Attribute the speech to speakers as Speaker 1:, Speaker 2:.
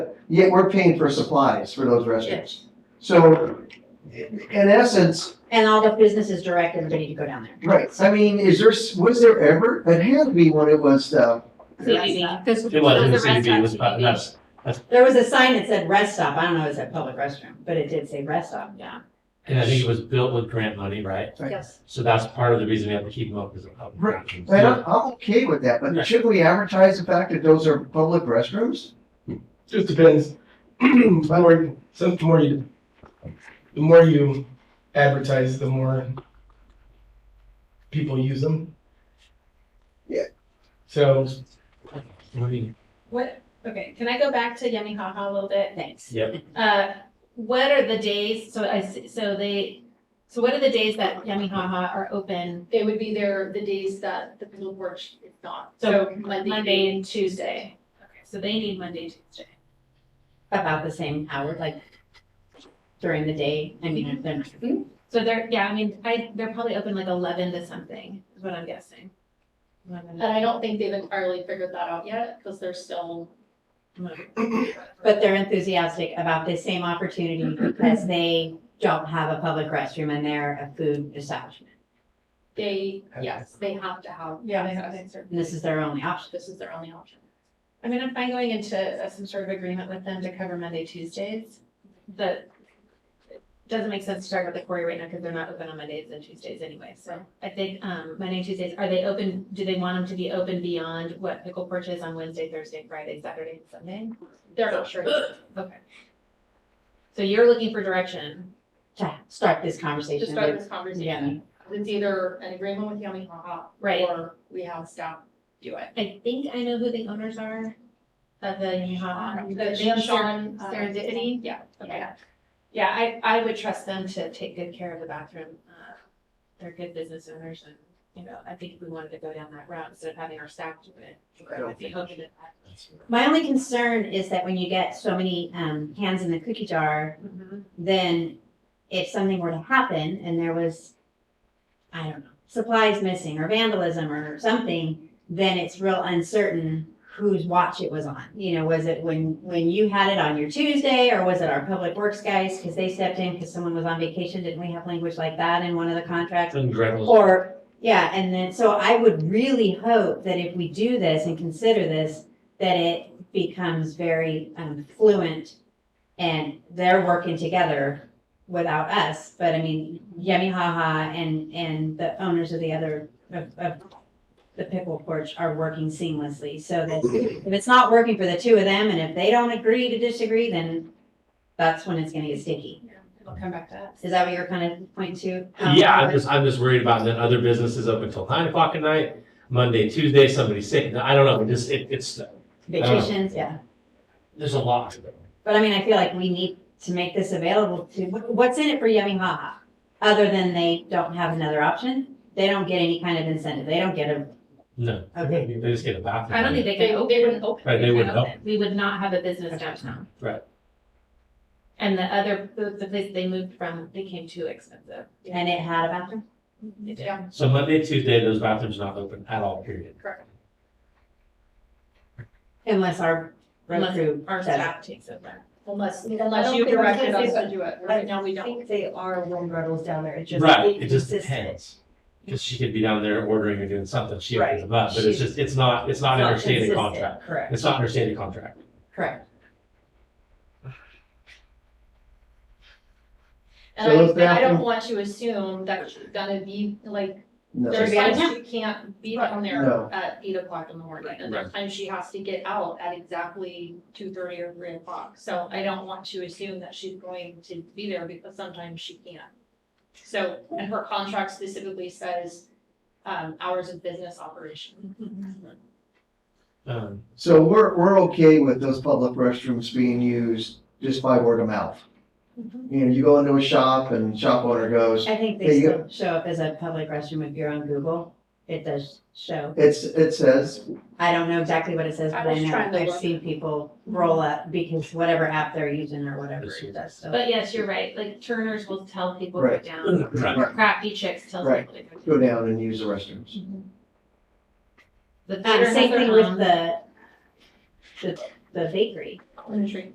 Speaker 1: but yet we're paying for supplies for those restaurants. So in essence,
Speaker 2: And all the businesses direct everybody to go down there.
Speaker 1: right, I mean, is there, was there ever, it had to be when it was the,
Speaker 3: CBD, because
Speaker 4: It wasn't
Speaker 3: those are
Speaker 4: CBD, it was
Speaker 3: restaurant
Speaker 4: not-
Speaker 3: CBD.
Speaker 2: There was a sign that said rest stop. I don't know, if it's a public restroom, but it did say rest stop.
Speaker 3: Yeah.
Speaker 4: And I think it was built with grant money, right?
Speaker 1: Right.
Speaker 3: Yes.
Speaker 4: So that's part of the reason we have to keep them up as a public.
Speaker 1: Right.
Speaker 4: option.
Speaker 1: and I'm, I'm okay with that, but
Speaker 4: Right.
Speaker 1: should we advertise the fact that those are public restrooms?
Speaker 5: Just depends. the more, some, the more you, the more you advertise, the more people use them.
Speaker 1: Yeah.
Speaker 5: So
Speaker 4: Moving-
Speaker 3: What, okay, can I go back to Yummy Haha a little bit? Thanks.
Speaker 4: Yep,
Speaker 3: Uh, what are the days, so I, s- so they, so what are the days that Yummy Haha are open?
Speaker 6: It would be there the days that the people work is not,
Speaker 3: So,
Speaker 6: so Monday.
Speaker 3: Monday and Tuesday. Okay, So they need Monday, Tuesday.
Speaker 2: About the same hour, like during the day. I mean, then
Speaker 3: So they're, yeah, I mean, I, they're probably open like eleven to something, is what I'm guessing.
Speaker 6: And I don't think they've entirely figured that out yet, because they're still.
Speaker 2: but they're enthusiastic about this same opportunity because they don't have a public restroom and they're a food establishment.
Speaker 6: They, yes, they have to have.
Speaker 3: Yeah, they have
Speaker 6: access.
Speaker 2: And this is their only option.
Speaker 6: This is their only option.
Speaker 3: I mean, I'm fine going into uh, some sort of agreement with them to cover Monday, Tuesdays, but it doesn't make sense to talk about the quarry right now because they're not open on Mondays and Tuesdays anyway. So I think um, Monday, Tuesdays, are they open? Do they want them to be open beyond what pickle porch is on Wednesday, Thursday, Friday, Saturday, and Sunday?
Speaker 6: They're not sure.
Speaker 3: Okay. So you're looking for direction.
Speaker 2: To start this
Speaker 6: To
Speaker 2: conversation
Speaker 6: start
Speaker 2: with
Speaker 6: this conversation, it's either an agreement with Yummy Haha.
Speaker 3: Right.
Speaker 6: Or we have staff do it.
Speaker 3: I think I know who the owners are of the Yamaha.
Speaker 6: The
Speaker 3: They have
Speaker 6: Uh, Sean, uh,
Speaker 3: Serendipity.
Speaker 6: Yeah. Okay.
Speaker 3: Yeah. Yeah, I, I would trust them to take good care of the bathroom. Uh, They're good business owners and, you know, I think if we wanted to go down that route instead of having our staff do it.
Speaker 1: I don't
Speaker 3: I'd be open to that.
Speaker 4: that's-
Speaker 2: My only concern is that when you get so many um, hands in the cookie jar, then if something were to happen and there was, I don't know, supplies missing or vandalism or something, then it's real uncertain whose watch it was on. You know, was it when, when you had it on your Tuesday or was it our public works guys? Because they stepped in because someone was on vacation. Didn't we have language like that in one of the contracts?
Speaker 4: And grant was-
Speaker 2: Or, yeah, and then, so I would really hope that if we do this and consider this, that it becomes very um, fluent and they're working together without us, but I mean, Yummy Haha and, and the owners of the other, of, of the pickle porch are working seamlessly, so that
Speaker 4: Mm-hmm.
Speaker 2: if it's not working for the two of them and if they don't agree to disagree, then that's when it's gonna get sticky.
Speaker 3: I'll come back to that.
Speaker 2: Is that what you're kind of pointing to? Um,
Speaker 4: Yeah, I'm just, I'm just worried about then other businesses up until nine o'clock at night, Monday, Tuesday, somebody's sick. I don't know, just, it, it's,
Speaker 2: Vacations, yeah.
Speaker 4: there's a lot to it.
Speaker 2: But I mean, I feel like we need to make this available to, what- what's in it for Yummy Haha? Other than they don't have another option, they don't get any kind of incentive, they don't get a,
Speaker 4: No,
Speaker 2: okay.
Speaker 4: they just get a bathroom.
Speaker 3: I don't think they
Speaker 6: They,
Speaker 3: can open.
Speaker 6: they wouldn't open.
Speaker 4: Right, they wouldn't help.
Speaker 3: We would not have a business downtown.
Speaker 4: Right.
Speaker 3: And the other, the, the place they moved from became too expensive.
Speaker 2: And it had a bathroom?
Speaker 3: They did.
Speaker 6: Yeah.
Speaker 4: So Monday, Tuesday, those bathrooms not open at all, period.
Speaker 6: Correct.
Speaker 2: Unless our road
Speaker 3: Unless
Speaker 2: crew
Speaker 3: Our
Speaker 2: says.
Speaker 3: staff takes over.
Speaker 6: Unless,
Speaker 7: I
Speaker 6: unless
Speaker 7: don't
Speaker 6: you
Speaker 7: think- I was
Speaker 6: directed
Speaker 7: gonna
Speaker 6: us
Speaker 7: say,
Speaker 6: to do it. Right now, we
Speaker 7: I
Speaker 6: don't.
Speaker 7: think they are wind rentals down there. It just.
Speaker 4: Right, it just
Speaker 7: inconsistent.
Speaker 4: depends. Because she could be down there ordering or doing something, she
Speaker 7: Right.
Speaker 4: opens them up, but it's
Speaker 2: She-
Speaker 4: just, it's not, it's not in her
Speaker 2: It's
Speaker 4: stated
Speaker 2: consistent.
Speaker 4: contract.
Speaker 2: Correct,
Speaker 4: It's not in her stated contract.
Speaker 2: correct.
Speaker 6: And
Speaker 1: So
Speaker 6: I,
Speaker 1: let's
Speaker 6: and I don't
Speaker 1: bathroom-
Speaker 6: want you to assume that she's gonna be, like,
Speaker 1: No.
Speaker 6: there's
Speaker 2: She'll be out of
Speaker 6: times she can't be down
Speaker 1: No.
Speaker 6: there at eight o'clock in the morning. And there's times she has to get out at exactly two thirty or three o'clock. So I don't want you to assume that she's going to be there because sometimes she can't. So, and her contract specifically says, um, hours of business operation.
Speaker 4: Um,
Speaker 1: So we're, we're okay with those public restrooms being used just by word of mouth. You know, you go into a shop and shop owner goes,
Speaker 2: I think
Speaker 1: There
Speaker 2: they
Speaker 1: you
Speaker 2: still show up as a public restroom if you're on Google, it does show.
Speaker 1: it's, it says,
Speaker 2: I don't know exactly what it says,
Speaker 6: I
Speaker 2: but I
Speaker 6: was
Speaker 2: know,
Speaker 6: trying to
Speaker 2: I've
Speaker 6: look.
Speaker 2: seen people roll up because whatever app they're using or whatever it does, so.
Speaker 3: But yes, you're right, like Turner's will tell people to go
Speaker 1: Right.
Speaker 3: down,
Speaker 4: right.
Speaker 3: or Crafty Chicks tells
Speaker 1: Right.
Speaker 3: people to go down.
Speaker 1: go down and use the restrooms.
Speaker 3: The
Speaker 2: Um,
Speaker 3: theater
Speaker 2: same
Speaker 3: has
Speaker 2: thing
Speaker 3: their
Speaker 2: with
Speaker 3: own.
Speaker 2: the, the, the bakery.
Speaker 6: Mm-hmm. Industry.